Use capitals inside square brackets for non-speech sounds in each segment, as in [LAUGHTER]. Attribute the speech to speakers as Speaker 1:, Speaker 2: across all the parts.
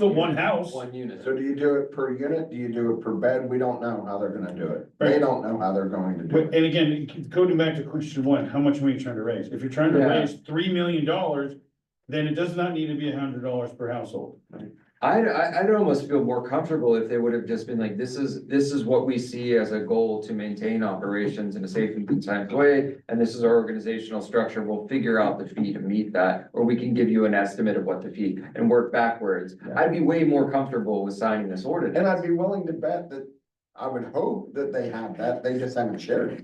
Speaker 1: the one house.
Speaker 2: One unit.
Speaker 3: So do you do it per unit? Do you do it per bed? We don't know how they're gonna do it. They
Speaker 1: Right.
Speaker 3: don't know how they're going to do
Speaker 1: But,
Speaker 3: it.
Speaker 1: and again, going back to question one, how much money are you trying to raise? If you're trying to
Speaker 3: Yeah.
Speaker 1: raise three million dollars, then it does not need to be a hundred dollars per household.
Speaker 2: I'd, I- I'd almost feel more comfortable if they would have just been like, this is, this is what we see as a goal to maintain operations in a safe and compliant way. And this is our organizational structure, we'll figure out the fee to meet that, or we can give you an estimate of what the fee and work backwards. I'd be way more comfortable with signing this
Speaker 3: And
Speaker 2: ordinance.
Speaker 3: I'd be willing to bet that, I would hope that they have that. They just haven't shared it.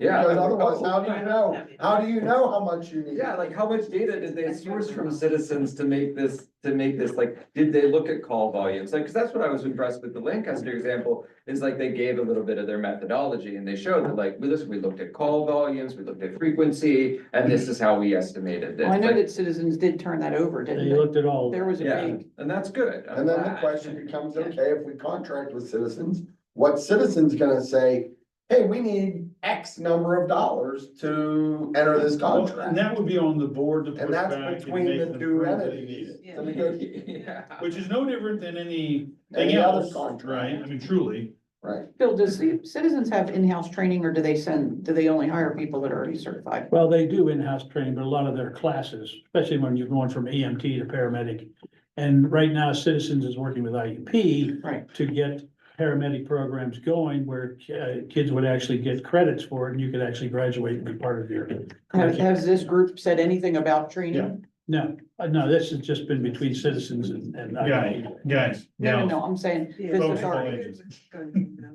Speaker 2: Yeah.
Speaker 3: Because otherwise, how do you know? How do you know how much you need?
Speaker 2: Yeah, like how much data did they source from citizens to make this, to make this, like, did they look at call volumes? Like, cause that's what I was impressed with the Lancaster example, is like they gave a little bit of their methodology and they showed that like, with this, we looked at call volumes, we looked at frequency, and this is how we estimated this.
Speaker 4: Well, I know
Speaker 2: Like,
Speaker 4: that citizens did turn that over, didn't
Speaker 5: They
Speaker 4: they?
Speaker 5: looked at all,
Speaker 4: There was a
Speaker 2: Yeah,
Speaker 4: big,
Speaker 2: and that's good. I'm
Speaker 3: And then the
Speaker 2: glad.
Speaker 3: question becomes, okay, if we contract with citizens, what citizens gonna say, hey, we need X number of dollars to enter this
Speaker 1: Well, And
Speaker 3: contract?
Speaker 1: that would be on the board to push
Speaker 3: And
Speaker 1: back.
Speaker 3: that's between
Speaker 1: and make
Speaker 3: the
Speaker 1: them
Speaker 3: two
Speaker 1: prove that they need
Speaker 3: entities.
Speaker 1: it.
Speaker 3: So we go-
Speaker 2: [LAUGHS] Yeah.
Speaker 1: Which is no different than any,
Speaker 3: Any
Speaker 1: anything
Speaker 3: other
Speaker 1: else,
Speaker 3: contract.
Speaker 1: right? I mean, truly.
Speaker 3: Right,
Speaker 4: Bill, does the citizens have in-house training or do they send, do they only hire people that are already certified?
Speaker 5: well, they do in-house training, but a lot of their classes, especially when you're going from EMT to paramedic. And right now Citizens is working with IUP.
Speaker 4: Right.
Speaker 5: To get paramedic programs going where uh, kids would actually get credits for it and you could actually graduate and be part of your.
Speaker 4: Has, has this group said anything about training?
Speaker 5: No, uh, no, this has just been between Citizens and, and. E
Speaker 1: Guys, guys,
Speaker 4: No, no,
Speaker 1: now,
Speaker 4: no, I'm saying,
Speaker 6: Yeah.
Speaker 4: does the
Speaker 1: Both
Speaker 4: authority,
Speaker 1: ways.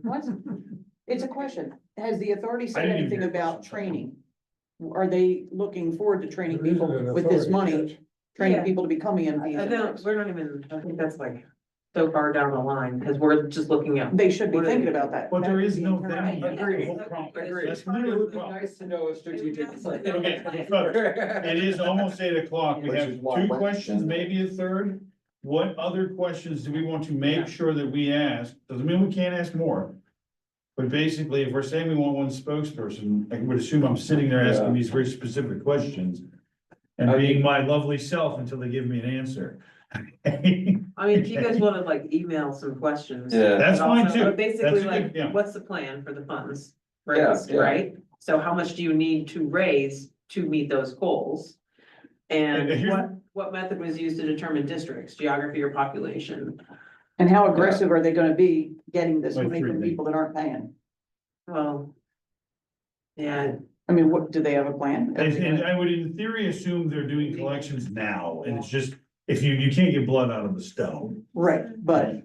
Speaker 4: what? It's a question. Has the authority
Speaker 1: I
Speaker 4: said
Speaker 1: didn't even
Speaker 4: anything
Speaker 1: hear the
Speaker 4: about
Speaker 1: question.
Speaker 4: training? Are they looking forward to training
Speaker 7: There isn't
Speaker 4: people
Speaker 7: an
Speaker 4: with this
Speaker 7: authority
Speaker 4: money, training
Speaker 6: Yeah.
Speaker 4: people to become E
Speaker 6: I don't,
Speaker 4: EMTs?
Speaker 6: we're not even, I think that's like so far down the line, because we're just looking at.
Speaker 4: They should be
Speaker 6: What are
Speaker 4: thinking
Speaker 6: they-
Speaker 4: about that.
Speaker 1: but there
Speaker 4: That
Speaker 1: is
Speaker 4: would be
Speaker 1: no
Speaker 4: encouraging.
Speaker 1: value.
Speaker 2: Agreed.
Speaker 1: Whole problem.
Speaker 2: Agreed.
Speaker 1: That's literally the problem.
Speaker 2: Nice to know a strategic plan.
Speaker 1: Okay, look,
Speaker 2: [LAUGHS]
Speaker 1: It is almost eight o'clock. We
Speaker 3: Which
Speaker 1: have
Speaker 3: is why
Speaker 1: two
Speaker 3: we're-
Speaker 1: questions, maybe a third. What other questions do we want to make sure that we ask? Doesn't mean we can't ask more. But basically, if we're saying we want one spokesperson, I would assume I'm sitting there asking these very specific questions. And
Speaker 2: I
Speaker 1: being my lovely self until they give me an answer. [LAUGHS]
Speaker 6: I mean, if you guys wanted like email some questions.
Speaker 2: Yeah.
Speaker 1: That's
Speaker 6: but
Speaker 1: fine
Speaker 6: also-
Speaker 1: too.
Speaker 6: But basically
Speaker 1: That's a
Speaker 6: like,
Speaker 1: good- yeah.
Speaker 6: what's the plan for the funds
Speaker 2: Yeah,
Speaker 6: raised,
Speaker 2: yeah.
Speaker 6: right? So how much do you need to raise to meet those goals?
Speaker 1: And
Speaker 6: And
Speaker 1: here's-
Speaker 6: what, what method was used to determine districts, geography or population?
Speaker 4: And how aggressive are they gonna be getting this
Speaker 1: Like
Speaker 4: money
Speaker 1: three
Speaker 4: from
Speaker 1: million.
Speaker 4: people that aren't paying?
Speaker 6: Well. Yeah,
Speaker 4: I mean, what, do they have a plan?
Speaker 1: And, and I would in theory assume they're doing collections now and it's just, if you, you can't get blood out of a stone.
Speaker 4: Right, but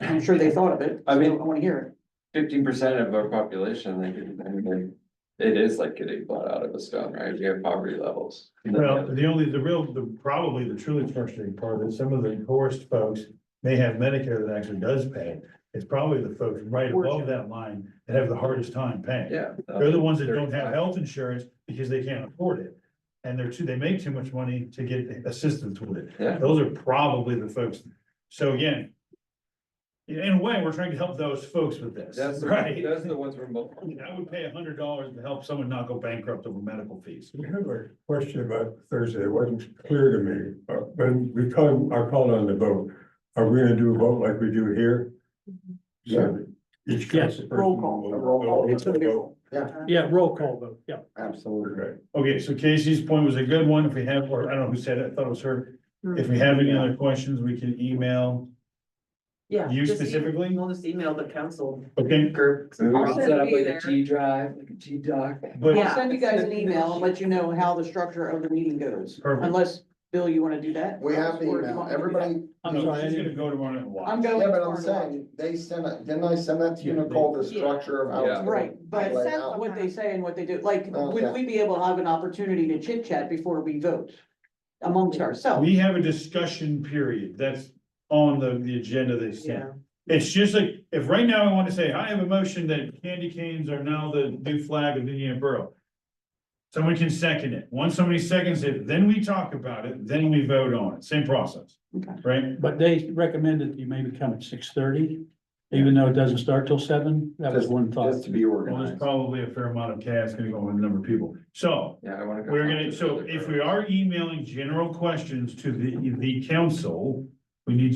Speaker 4: I'm sure they thought of it.
Speaker 2: I mean-
Speaker 4: so I wanna hear
Speaker 2: fifteen percent of our population, like, I mean, it is like getting blood out of a stone, right? We have poverty levels.
Speaker 1: Well, the only, the real, the, probably the truly frustrating part of it, some of the poorest folks may have Medicare that actually does pay. It's probably the folks right above that line that have the hardest time paying.
Speaker 2: Yeah.
Speaker 1: They're the ones that don't have health insurance because they can't afford it. And they're too, they make too much money to get assistance with it.
Speaker 2: Yeah.
Speaker 1: Those are probably the folks. So again. In a way, we're trying to help those folks with
Speaker 2: That's
Speaker 1: this,
Speaker 2: the,
Speaker 1: right?
Speaker 2: those are the ones we're most.
Speaker 1: I would pay a hundred dollars to help someone not go bankrupt over medical fees.
Speaker 7: I have a question about Thursday, it wasn't clear to me, uh, when we called, I called on the vote, are we gonna do a vote like we do here? So each
Speaker 5: Yes.
Speaker 7: council person.
Speaker 4: Roll call.
Speaker 7: will-
Speaker 3: A roll call.
Speaker 4: it. It's gonna be-
Speaker 7: will-
Speaker 5: Yeah, roll call vote, yeah.
Speaker 3: absolutely.
Speaker 7: Okay.
Speaker 1: Okay, so Casey's point was a good one. If we have, or I don't know who said it, I thought it was her. If we have any other questions, we can email.
Speaker 6: yeah.
Speaker 1: You
Speaker 6: just e-
Speaker 1: specifically?
Speaker 6: We'll just email the council
Speaker 1: Okay,
Speaker 6: group.
Speaker 2: We
Speaker 4: I'll
Speaker 2: will
Speaker 4: send
Speaker 2: set up
Speaker 6: you
Speaker 2: like a
Speaker 6: there.
Speaker 2: G drive, like a G doc.
Speaker 1: but
Speaker 4: I'll send you guys an email and let you know how the structure of the meeting goes.
Speaker 1: Perfect.
Speaker 4: Unless, Bill, you wanna do that?
Speaker 3: We have the
Speaker 4: Or you
Speaker 3: email.
Speaker 4: want me to do
Speaker 3: Everybody,
Speaker 5: I'm
Speaker 1: no,
Speaker 5: sorry, I
Speaker 1: she's gonna
Speaker 5: didn't-
Speaker 1: go tomorrow and
Speaker 4: that? I'm
Speaker 1: watch.
Speaker 4: going.
Speaker 3: yeah, but I'm
Speaker 4: tomorrow.
Speaker 3: saying, they sent it, didn't I send that to you, Nicole, the
Speaker 6: Yeah.
Speaker 3: structure of how it's
Speaker 2: Yeah.
Speaker 4: Right, but
Speaker 3: laid out?
Speaker 4: what they say and what they do, like, would
Speaker 3: Okay.
Speaker 4: we be able to have an opportunity to chit chat before we vote? Amongst ourselves,
Speaker 1: We have a discussion period. That's on the, the agenda they sent.
Speaker 6: Yeah,
Speaker 1: It's just like, if right now I want to say, I have a motion that candy canes are now the new flag of Indiana Borough. Someone can second it. Once somebody seconds it, then we talk about it, then we vote on it. Same process.
Speaker 4: Okay.
Speaker 1: Right?
Speaker 5: But they recommended you maybe come at six thirty, even though it doesn't start till seven, that was one thought.
Speaker 3: Just to be
Speaker 1: Well, there's
Speaker 3: organized.
Speaker 1: probably a fair amount of chaos gonna go on with a number of people. So
Speaker 2: Yeah, I wanna. go
Speaker 1: We're
Speaker 2: talk
Speaker 1: gonna,
Speaker 2: to
Speaker 1: so
Speaker 2: the
Speaker 1: if
Speaker 2: group.
Speaker 1: we are emailing general questions to the, the council, we need